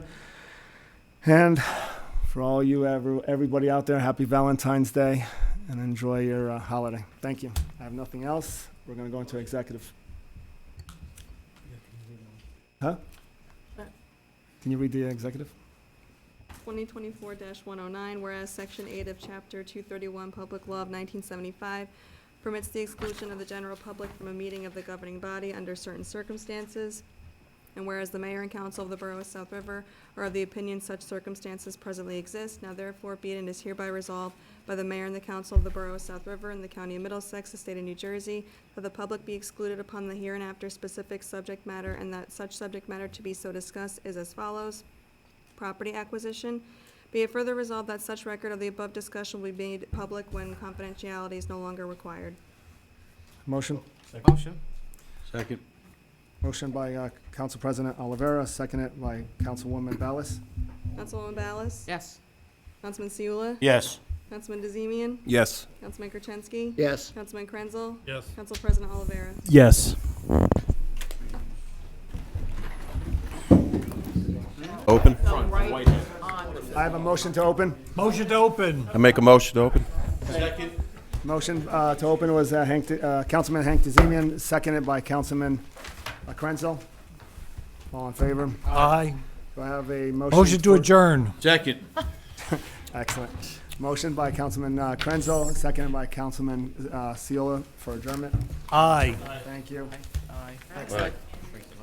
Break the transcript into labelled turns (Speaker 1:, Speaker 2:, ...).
Speaker 1: And for all you, every, everybody out there, happy Valentine's Day and enjoy your uh, holiday. Thank you. I have nothing else. We're going to go into executive. Huh?
Speaker 2: What?
Speaker 1: Can you read the executive?
Speaker 2: 2024-109, whereas Section 8 of Chapter 231 Public Law of 1975 permits the exclusion of the general public from a meeting of the governing body under certain circumstances, and whereas the mayor and council of the borough of South River are of the opinion such circumstances presently exist, now therefore be it and is hereby resolved by the mayor and the council of the borough of South River and the county of Middlesex, the state of New Jersey, that the public be excluded upon the hereinafter specific subject matter, and that such subject matter to be so discussed is as follows property acquisition. Be it further resolved that such record of the above discussion will be made public when confidentiality is no longer required.
Speaker 1: Motion?
Speaker 3: Motion?
Speaker 4: Second.
Speaker 1: Motion by uh, Council President Olivera, seconded by Councilwoman Ballas.
Speaker 2: Councilwoman Ballas?
Speaker 3: Yes.
Speaker 2: Councilman Seula?
Speaker 4: Yes.
Speaker 2: Councilman DeZemian?
Speaker 4: Yes.
Speaker 2: Councilman Gertenski?
Speaker 4: Yes.
Speaker 2: Councilman Krenzel?
Speaker 3: Yes.
Speaker 2: Council President Olivera?
Speaker 5: Yes.
Speaker 4: Open.
Speaker 1: I have a motion to open.
Speaker 5: Motion to open.
Speaker 4: I make a motion to open?
Speaker 1: Motion uh, to open was uh, Hank, De- uh, Councilman Hank DeZemian, seconded by Councilman uh, Krenzel. All in favor?
Speaker 5: Aye.
Speaker 1: Do I have a motion?
Speaker 5: Motion to
Speaker 1: for-
Speaker 5: adjourn.
Speaker 4: Second.
Speaker 1: Excellent. Motion by Councilman uh, Krenzel, seconded by Councilman uh, Seola for adjournment.
Speaker 5: Aye.
Speaker 1: Thank you.
Speaker 3: Aye.
Speaker 4: Right.